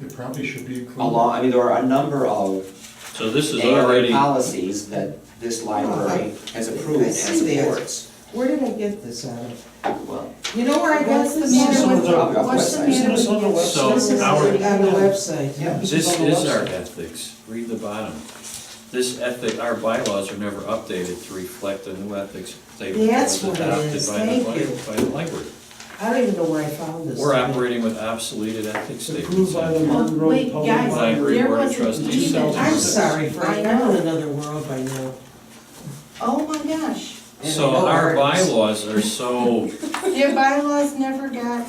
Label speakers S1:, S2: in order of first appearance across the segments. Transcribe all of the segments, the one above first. S1: It probably should be included.
S2: a law, I mean, there are a number of
S3: So this is
S2: ALA
S3: already,
S2: policies that this library has approved
S4: I
S2: and
S4: see that.
S2: supports.
S4: Where did I get this out of?
S2: Well,
S4: You know where I got
S5: What's the
S4: this?
S5: matter with-
S2: Probably off
S5: what's the
S2: website.
S5: matter with
S6: Isn't this on the
S5: your-
S6: website?
S3: So,
S5: this is
S3: our-
S5: already
S4: On the
S5: on.
S4: website.
S2: yeah.
S3: this is our ethics, read the bottom. This ethic, our bylaws are never updated to reflect the new ethics statement that was
S4: That's what it
S3: adopted
S4: is.
S3: by the,
S4: Thank
S3: li-
S4: you.
S3: by the library.
S4: I don't even know where I found this.
S3: We're operating with obsoleted ethics
S6: Approved
S3: statements.
S6: by the
S5: Well,
S6: Monroe
S5: wait,
S6: Public
S5: guys,
S6: Library.
S5: there
S3: Board of
S5: wasn't
S3: Trustees
S5: even.
S3: sells
S4: I'm sorry,
S5: I
S4: Frank, I'm in
S5: know.
S4: another world by now.
S5: Oh my gosh,
S4: And I
S3: So
S4: know
S3: our
S4: where it is.
S3: bylaws are so
S5: their bylaws never got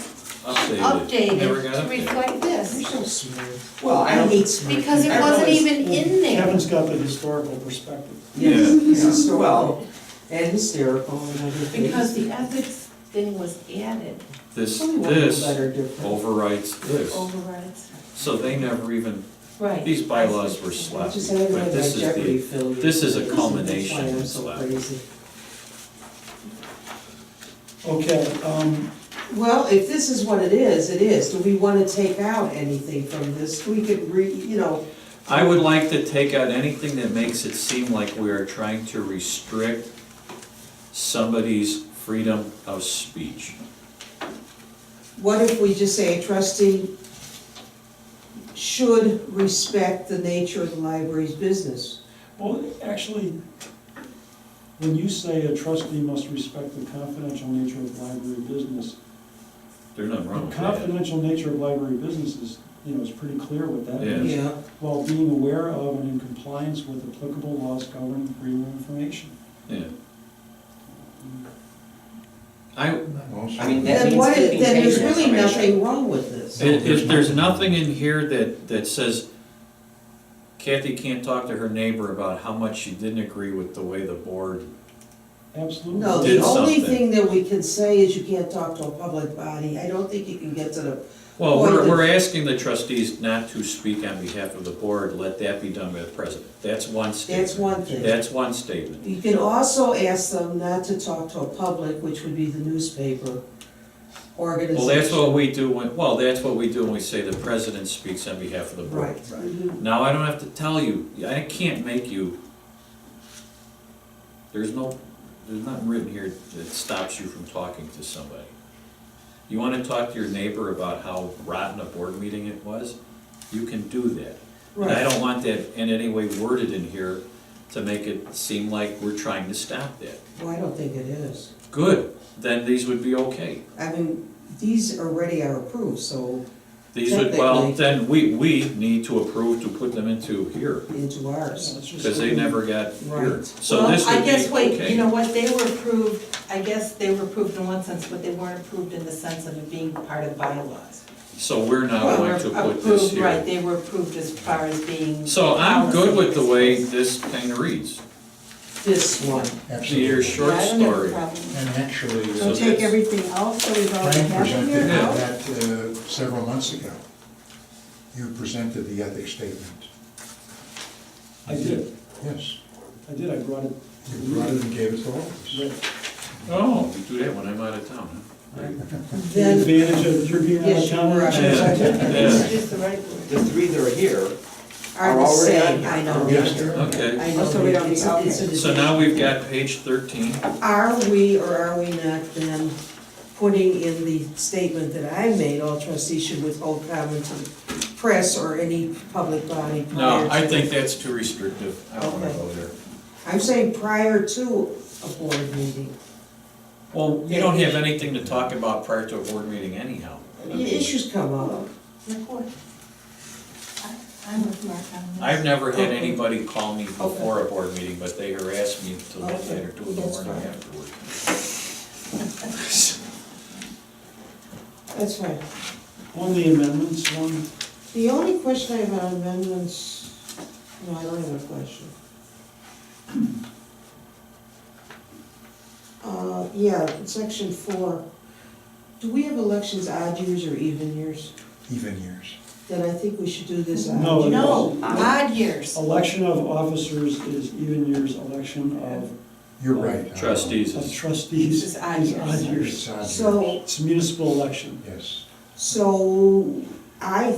S3: updated, never
S5: updated
S3: got
S5: to
S3: updated.
S5: reflect this,
S4: You're so smart.
S2: Well, I
S4: I
S2: don't,
S4: hate smart.
S5: because it
S2: I
S5: wasn't
S2: realize-
S5: even in there.
S6: Kevin's got the historical perspective.
S4: Yes,
S3: Yeah.
S4: it's historical
S2: Well-
S4: And hysterical and everything.
S5: Because the ethics thing was added,
S3: This,
S4: Only one little
S3: this
S4: letter different.
S3: overwrites this.
S4: Oh.
S5: overrides.
S3: So they never even,
S5: Right.
S3: these bylaws were
S4: I
S3: slapped,
S4: just had my
S3: but this is
S4: Jeopardy
S3: the,
S4: filled.
S3: this is a
S4: That's
S3: culmination
S4: why I'm
S3: of
S4: so
S3: slap.
S4: crazy.
S6: Okay, um,
S4: Well, if this is what it is, it is. Do we wanna take out anything from this? We could re, you know,
S3: I would like to take out anything that makes it seem like we are trying to restrict somebody's freedom of speech.
S4: What if we just say a trustee should respect the nature of the library's business?
S6: well, actually, when you say a trustee must respect the confidential nature of library business,
S3: There's nothing wrong
S6: the
S3: with that.
S6: confidential nature of library business is, you know, is pretty clear what that
S3: Yeah.
S6: means.
S4: Yeah,
S6: While being aware of and in compliance with applicable laws governing freedom of information.
S3: Yeah. I,
S1: Also-
S2: I mean, that
S4: then
S2: means
S4: what,
S2: keeping
S4: then there's
S2: patient
S4: really
S2: information.
S4: nothing wrong with this.
S3: if, if there's nothing in here that, that says Kathy can't talk to her neighbor about how much she didn't agree with the way the board,
S6: Absolutely.
S4: No, the
S3: Did
S4: only
S3: something.
S4: thing that we can say is you can't talk to a public body. I don't think you can get to the,
S3: well,
S4: Well,
S3: we're,
S4: the-
S3: we're asking the trustees not to speak on behalf of the board, let that be done by the president. That's one statement.
S4: that's one thing.
S3: That's one statement.
S4: You can also ask them not to talk to a public, which would be the newspaper
S3: Well, that's
S4: organization.
S3: what we do when, well, that's what we do when we say the president speaks on behalf of the board.
S4: Right. Mhm.
S3: Now, I don't have to tell you, I can't make you, there's no, there's nothing written here that stops you from talking to somebody. You wanna talk to your neighbor about how rotten a board meeting it was? You can do that. And I
S4: Right.
S3: don't want that in any way worded in here to make it seem like we're trying to stop that.
S4: Well, I don't think it is.
S3: Good, then these would be okay.
S4: I mean, these already are approved, so
S3: These would, well,
S4: Technically.
S3: then we, we need to approve to put them into here,
S4: into ours.
S3: because they never got here.
S4: Right.
S3: So this
S5: Well,
S3: would
S5: I guess,
S3: be,
S5: wait, you
S3: okay.
S5: know what, they were approved, I guess they were approved in one sense, but they weren't approved in the sense of it being part of bylaws.
S3: So we're now
S5: Well,
S3: going to
S5: we're
S3: put this
S5: approved, Right,
S3: here.
S5: they were approved as far as being.
S3: So I'm good with the way
S5: policy.
S3: this thing reads.
S4: This one.
S3: Your
S1: Absolutely.
S3: short
S5: Yeah, I don't have a
S3: story.
S5: problem.
S1: And actually,
S3: So
S5: So
S1: uh,
S5: take everything out that we've already
S1: Frank
S5: had in here
S1: presented
S3: Yeah.
S5: out?
S1: that uh, several months ago. You presented the ethics statement.
S6: I did,
S1: Yes,
S6: I did, I brought it. to the
S1: you brought it
S6: meeting.
S1: and gave it to all of us.
S6: Right.
S3: Oh, we do that when I'm out of town, huh?
S4: Then,
S6: Advantage of your being on
S4: Yes,
S6: the
S4: you
S6: counter.
S4: were on
S3: Yeah.
S5: It's just the right word.
S2: The three that are here
S4: are
S2: are
S4: the
S2: already on
S4: same,
S2: here.
S4: I know.
S1: Yes, there are.
S3: Okay,
S4: I know.
S5: So we don't
S4: it's-
S5: need- okay.
S4: it's a-
S3: so now we've got page thirteen.
S4: Are we or are we not then putting in the statement that I made, all trustees should withhold comment to the press or any public body
S5: Oh,
S4: prior
S3: No,
S4: to.
S3: I think that's too restrictive. I don't wanna
S4: Okay.
S3: go there.
S4: I'm saying prior to a board meeting.
S3: Well, you don't have anything to talk about prior to a board meeting anyhow.
S4: Issues come up.
S5: Nicole. I- I'm with Mark on this.
S3: I've never had
S4: Okay.
S3: anybody call me before a board meeting, but they harassed me till
S4: Okay,
S3: later, two in the
S4: that's
S3: morning
S4: fine.
S3: afterward.
S4: That's right.
S6: On the amendments one,
S4: The only question I have on amendments, no, I don't have a question. Uh, yeah, section four, do we have elections odd years or even years?
S1: Even years.
S4: Then I think we should do this odd.
S6: No,
S4: year.
S5: No, odd years.
S6: election of officers is even years, election of
S1: You're right.
S3: Trustees
S6: of
S3: is,
S6: trustees
S5: This
S6: is
S5: is odd
S6: odd
S5: years.
S6: years.
S1: It's on here.
S4: So,
S6: It's a municipal election.
S1: Yes.
S4: so I